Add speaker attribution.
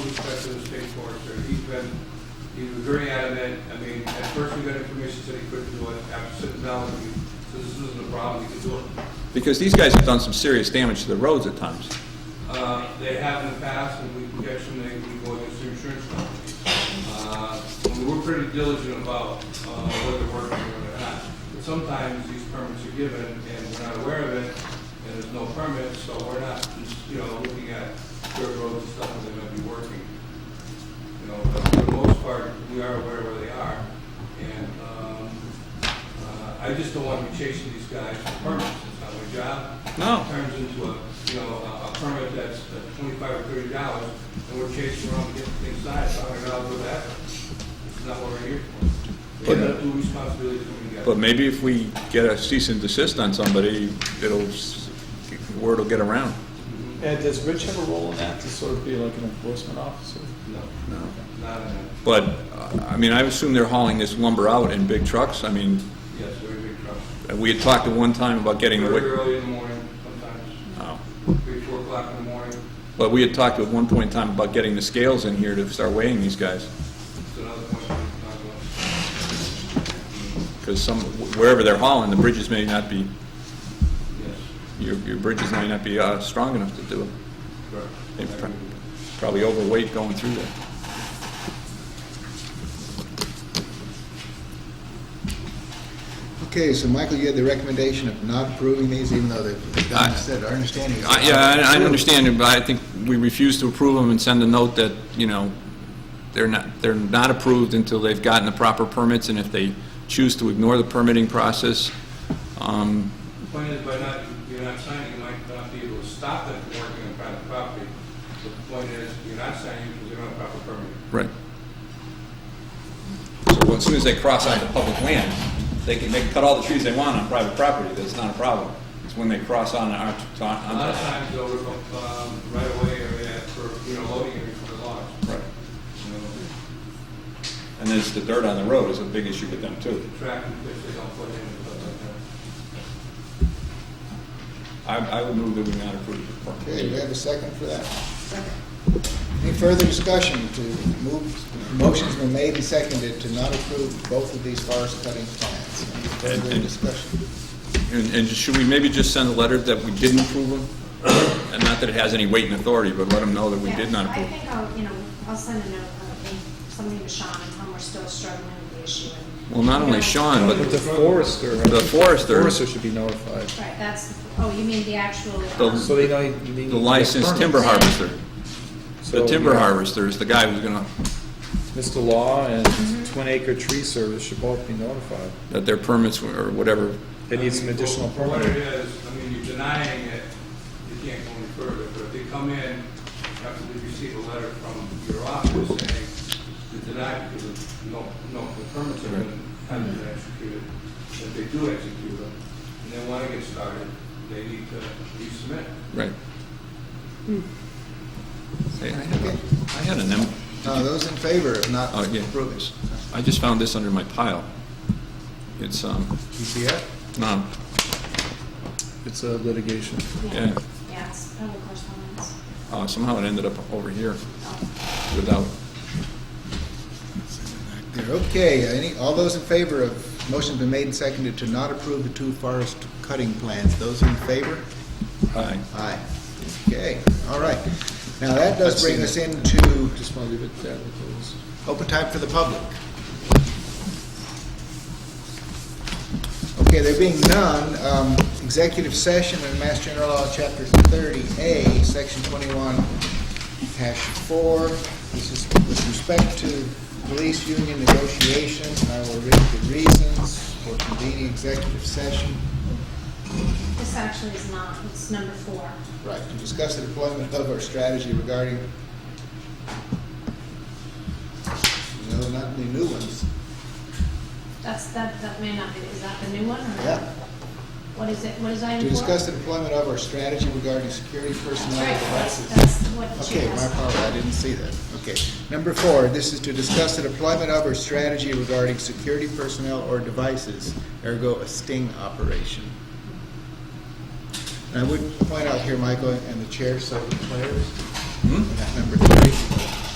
Speaker 1: huge threat to the state forester. He's been, he was very adamant, I mean, at first we got information said he couldn't do it, after sitting down with me, so this isn't a problem, he can do it.
Speaker 2: Because these guys have done some serious damage to the roads at times.
Speaker 1: Uh, They have in the past, and we can catch them, they can go against the insurance company. Uh, and We're pretty diligent about uh, whether they're working or not. But sometimes these permits are given, and we're not aware of it, and there's no permit, so we're not, you know, looking at dirt roads and stuff that they might be working. You know, but for the most part, we are aware where they are, and um, uh, I just don't want to be chasing these guys for permits, it's not my job
Speaker 2: No.
Speaker 1: turns into a, you know, a a permit that's uh, twenty-five or thirty dollars, and we're chasing around to get things signed, so I'm gonna do that. It's not what we're here for. We have a due responsibility to come together.
Speaker 2: But maybe if we get a cease and desist on somebody, it'll, s- word will get around.
Speaker 3: And does Rich have a role in that, to sort of be like an enforcement officer?
Speaker 1: No, not in that.
Speaker 2: But, uh, I mean, I assume they're hauling this lumber out in big trucks. I mean,
Speaker 1: Yes, very big trucks.
Speaker 2: we had talked at one time about getting,
Speaker 1: Very
Speaker 2: wi-
Speaker 1: early in the morning, sometimes,
Speaker 2: oh.
Speaker 1: three, four o'clock in the morning,
Speaker 2: but we had talked at one point in time about getting the scales in here to start weighing these guys.
Speaker 1: it's another point we can talk about.
Speaker 2: Because some, wherever they're hauling, the bridges may not be,
Speaker 1: Yes,
Speaker 2: your, your bridges may not be, uh, strong enough to do it. They
Speaker 1: correct. I
Speaker 2: pro-
Speaker 1: agree with you.
Speaker 2: Probably overweight going through there.
Speaker 4: Okay, so Michael, you had the recommendation of not approving these, even though they've
Speaker 2: I-
Speaker 4: done said, our understanding is.
Speaker 2: I- Yeah, I I understand it, but I think we refuse to approve them and send a note that, you know, they're not, they're not approved until they've gotten the proper permits, and if they choose to ignore the permitting process, um,
Speaker 1: The point is, by not, you're not signing, you might not be able to stop them from working on private property. The point is, you're not signing because you don't have proper permit.
Speaker 2: right. So well, as soon as they cross onto public land, they can, they can cut all the trees they want on private property, that's not a problem. It's when they cross on our,
Speaker 1: A
Speaker 2: on,
Speaker 1: lot of
Speaker 2: on,
Speaker 1: times they'll rip up, um, right away or that for, you know, loading area for the logs.
Speaker 2: right.
Speaker 1: You know,
Speaker 2: And there's the dirt on the road is a big issue with them, too.
Speaker 1: track if they don't put in and stuff like that.
Speaker 2: I, I would move that we not approve the permit.
Speaker 4: Okay, we have a second for that. Any further discussion to move, motion's been made and seconded to not approve both of these forest cutting plans. Any
Speaker 2: And-
Speaker 4: further
Speaker 2: and-
Speaker 4: discussion?
Speaker 2: And, and should we maybe just send a letter that we didn't approve them? And not that it has any weight and authority, but let them know that we
Speaker 5: Yeah,
Speaker 2: did not
Speaker 5: I
Speaker 2: approve.
Speaker 5: think I'll, you know, I'll send a note, uh, in- something to Sean, and tell him we're still struggling with the issue. and-
Speaker 2: Well, not only Sean, but
Speaker 3: But the forester.
Speaker 2: The forester.
Speaker 3: Forester should be notified,
Speaker 5: Right, that's, the- oh, you mean the actual,
Speaker 2: The-
Speaker 5: um,
Speaker 3: so they know you need.
Speaker 2: the licensed timber harvester. The
Speaker 3: So,
Speaker 2: timber
Speaker 3: yeah,
Speaker 2: harvester is the guy who's gonna,
Speaker 3: Mr. Law and Twin Acre Tree Service should both be notified.
Speaker 2: that their permits were- or whatever.
Speaker 3: They need some
Speaker 1: I mean,
Speaker 3: additional
Speaker 1: for- for What it
Speaker 3: permit.
Speaker 1: is, I mean, you're denying it, you can't go any further, but if they come in after they receive a letter from your office saying you're denied because of no, no, the permits have been, haven't been executed, if they do execute them, and they wanna get started, they need to resubmit.
Speaker 2: Right. Hey, I
Speaker 4: Okay.
Speaker 2: had- I had an, em-
Speaker 4: Now, those in favor of not
Speaker 2: Oh, yeah.
Speaker 4: approving?
Speaker 2: I just found this under my pile. It's, um,
Speaker 4: PCF?
Speaker 2: no,
Speaker 3: It's a litigation.
Speaker 2: yeah,
Speaker 5: yeah, it's probably correspondence.
Speaker 2: uh, somehow it ended up over here
Speaker 5: Oh.
Speaker 2: without,
Speaker 4: They're okay. Any, all those in favor of, motion's been made and seconded to not approve the two forest cutting plans. Those in favor?
Speaker 2: I,
Speaker 4: Aye. Okay, all right. Now, that does bring us into. Just want to leave it there. Open time for the public. Okay, there being none, um, executive session in Mass General Law, Chapter 30A, Section 21, Hash 4. This is with respect to police union negotiations. I will read the reasons for convening executive session.
Speaker 5: This actually is not, it's number four.
Speaker 4: Right, to discuss the deployment of our strategy regarding, no, not the new ones.
Speaker 5: That's, that, that may not be, is that the new one, or?
Speaker 4: Yeah.
Speaker 5: What is it, what is item
Speaker 4: To
Speaker 5: four?
Speaker 4: discuss the deployment of our strategy regarding security
Speaker 5: That's
Speaker 4: personnel
Speaker 5: right,
Speaker 4: and
Speaker 5: that's,
Speaker 4: devices.
Speaker 5: that's what she
Speaker 4: Okay, my
Speaker 5: has.
Speaker 4: apologies, I didn't see that. Okay. Number four, this is to discuss the deployment of our strategy regarding security personnel or devices, ergo a sting operation. And I would point out here, Michael, and the chair, so declares,
Speaker 2: hmm?
Speaker 4: that number three.